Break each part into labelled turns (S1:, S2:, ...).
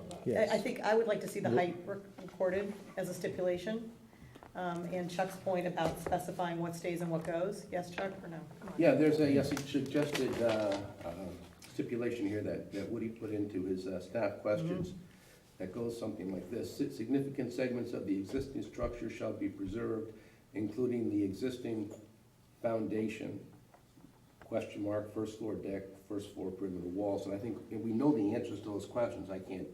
S1: I, I
S2: Yes.
S1: think I would like to see the
S2: Yep.
S1: height rec- recorded as a stipulation. Um, and Chuck's point about specifying what stays and what goes, yes, Chuck, or no? Come on.
S3: Yeah, there's a a suggested uh, uh, stipulation here that that Woody put into his uh, staff questions that goes something like this. "Si- Significant segments of the existing structure shall be preserved, including the existing foundation, question mark, first floor deck, first floor perimeter walls. And I think, and we know the answers to those questions. I can't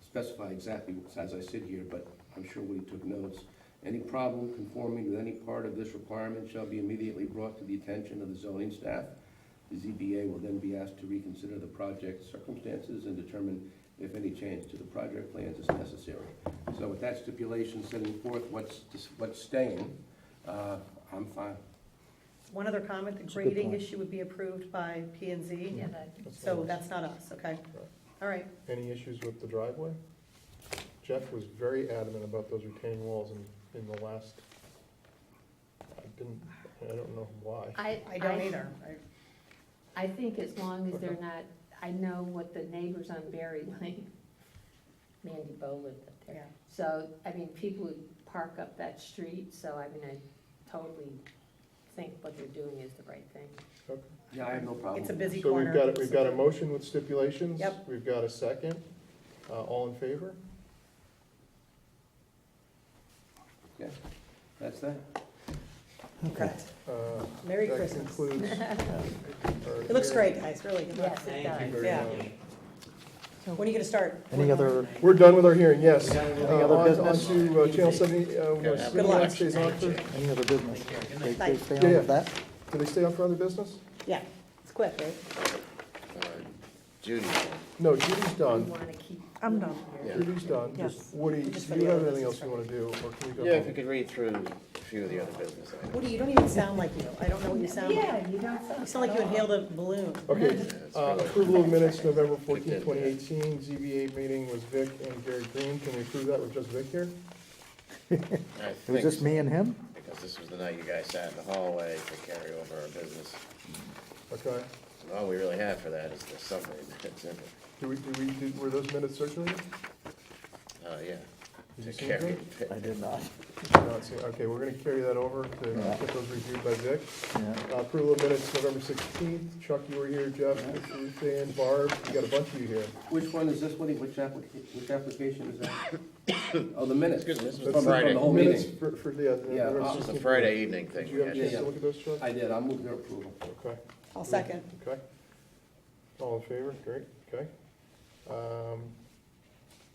S3: specify exactly as I sit here, but I'm sure Woody took notes. Any problem conforming with any part of this requirement shall be immediately brought to the attention of the zoning staff. The ZBA will then be asked to reconsider the project circumstances and determine if any change to the project plans is necessary. So with that stipulation setting forth what's, what's staying, uh, I'm fine.
S1: One other comment, the
S2: a good
S1: grading
S2: point.
S1: issue would be approved by P and Z,
S4: Yeah, that,
S1: so that's not us, okay? All right,
S5: Any issues with the driveway? Jeff was very adamant about those retaining walls in, in the last, I didn't, I don't know why.
S4: I,
S1: I don't
S4: I,
S1: either. I-
S4: I think as long as they're
S5: Okay.
S4: not, I know what the neighbors on Berry Lane, Mandy Bo lived up there.
S1: Yeah,
S4: So, I mean, people would park up that street, so I mean, I totally think what they're doing is the right thing.
S5: Okay.
S3: Yeah, I have no problem.
S1: it's a busy
S5: So we've
S1: corner.
S5: got, we've got a motion with stipulations.
S1: Yep.
S5: We've got a second. Uh, all in favor?
S3: Yeah, that's that.
S1: Okay.
S5: Uh,
S1: Merry
S5: that
S1: Christmas.
S5: concludes our
S1: It looks
S5: hearing.
S1: great, guys, really. good luck.
S4: Yes, it does.
S5: Very
S1: Yeah.
S5: much.
S1: When are you gonna start?
S2: Any other,
S5: We're done with our hearing, yes. Uh,
S2: Any other business?
S5: On to Channel 70, uh, we're
S1: Good
S5: assuming
S1: luck.
S5: that stays on for,
S2: any other business? They, they stay
S5: Yeah,
S2: on
S5: yeah.
S2: with that?
S5: do they stay on for other business?
S1: Yeah, it's quick, right?
S6: Judy,
S5: No, Judy's
S4: We
S5: done.
S4: wanna keep.
S1: I'm
S4: moving
S1: done.
S4: here.
S6: Yeah.
S5: Judy's done.
S1: Yes.
S5: Just Woody,
S1: Just for
S5: do you
S1: the
S5: have
S1: other
S5: anything else
S1: business.
S5: you want to do, or can we go
S6: yeah, if you
S5: home?
S6: could read through a few of the other business items.
S1: Woody, you don't even sound like you. I don't know what you sound like.
S4: Yeah, Oh, you don't sound.
S1: You sound like you inhaled a balloon.
S5: Okay,
S6: That's
S5: uh,
S6: really-
S5: approval of minutes, November 14,
S6: Good.
S5: 2018, ZBA meeting was Vic and Gary Green. Can we approve that with just Vic here?
S6: I
S2: It was
S6: think
S2: just
S6: so,
S2: me and him?
S6: because this was the night you guys sat in the hallway to carry over our business.
S5: Okay.
S6: And all we really have for that is the summary minutes, isn't it?
S5: Do we, do we, did- were those minutes circulated?
S6: Oh, yeah.
S5: Did
S6: To
S5: you see
S6: carry.
S5: them?
S2: I did not.
S5: No, it's- Okay, we're going to carry that over to
S2: Yeah.
S5: get those reviewed by Vic.
S2: Yeah.
S5: Uh, Approval of minutes, November 16th. Chuck, you were here, Jeff, Ruth Ann, Barb, we got a bunch of you here.
S3: Which one is this, Woody? Which application, which application is that? Oh, the minutes.
S6: Excuse me, this was
S3: From- from the
S6: Friday.
S3: whole
S5: Minutes
S3: meeting.
S5: for, for, yeah. the
S3: Yeah,
S5: November
S3: uh,
S6: This was the
S5: 16th.
S6: Friday evening thing.
S5: Did you have a
S6: we had.
S5: chance to look at those, Chuck?
S3: I did, I'll move your approval.
S5: Okay.
S1: I'll second.
S5: Okay. All in favor? Great, okay. Um,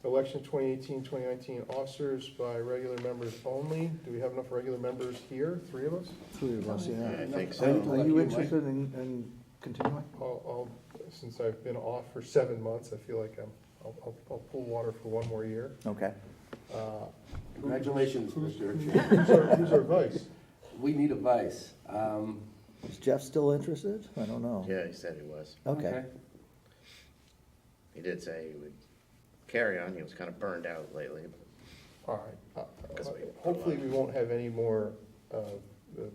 S5: Election 2018, 2019 officers by regular members only. Do we have enough regular members here? Three of us?
S2: Three of us,
S6: Yeah,
S2: yeah.
S6: I think
S2: Are
S6: so.
S2: are you
S3: Mike.
S2: interested in, in continuing?
S5: I'll, I'll, since I've been off for seven months, I feel like I'm, I'll, I'll- I'll pull water for one more year.
S2: Okay.
S5: Uh,
S3: Congratulations, Mr. Chair.
S5: Who's our, who's our vice?
S3: We need a vice. Um,
S2: Is Jeff still interested? I don't know.
S6: Yeah, he said he was.
S2: Okay.
S6: He did say he would carry on. He was kind of burned out lately. but
S5: All right.
S6: Because
S5: Uh,
S6: we-
S5: Hopefully, we won't have any more uh, the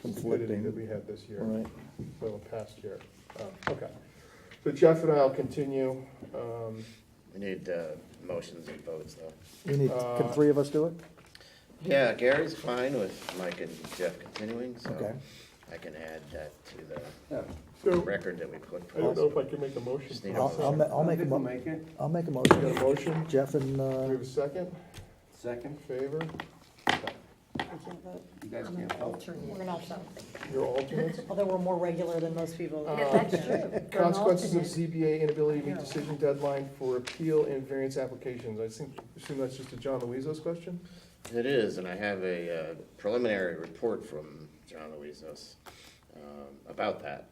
S5: stupidity
S2: Conflicting.
S5: that we had this year.
S2: All right.
S5: Well, past year, Oh, okay. So Jeff and I'll continue. Um,
S6: We need uh, motions and votes, though.
S2: We need, can
S5: Uh,
S2: three of us do it?
S6: Yeah, Gary's fine with Mike and Jeff continuing,
S2: Okay.
S6: so I can add that to
S3: yeah.
S6: the
S5: So,
S6: record that we put
S5: I don't know
S6: forth.
S5: if I can make a motion.
S6: Just
S5: We
S6: need a
S2: I'll, I'll, ma-
S6: motion.
S2: I'll make a
S3: Vic will
S2: mo,
S3: Make it,
S2: I'll make a
S5: Got a
S2: motion.
S5: motion?
S2: Jeff and,
S5: Do we
S2: uh,
S5: have a second?
S3: second.
S5: Favor?
S1: I can't vote.
S3: You guys
S4: I'm an
S3: can't help.
S4: alternate
S1: We're an
S4: or
S1: alternate.
S4: something.
S5: Your alternates?
S1: Although we're more regular than most people.
S5: Yeah,
S4: That's true. We're an
S5: Consequences of
S4: alternate.
S5: ZBA inability to meet decision deadline for appeal and variance applications. I think, assume that's just a John Luizos question?
S6: It is, and I have a uh, preliminary report from John Luizos um, about that,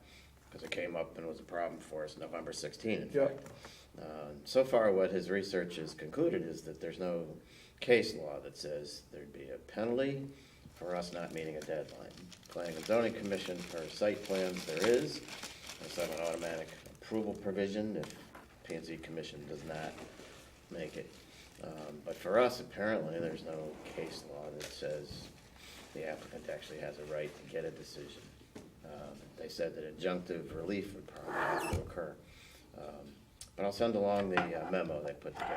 S6: because it came up and was a problem for us November 16, in
S5: Yeah.
S6: fact. Uh, So far, what his research has concluded is that there's no case law that says there'd be a penalty for us not meeting a deadline. Planning and zoning commission for site plans, there is. There's some automatic approval provision if P and Z commission does not make it. Um, But for us, apparently, there's no case law that says the applicant actually has a right to get a decision. Um, They said that injunctive relief would probably have to occur. Um, But I'll send along the uh, memo they put together.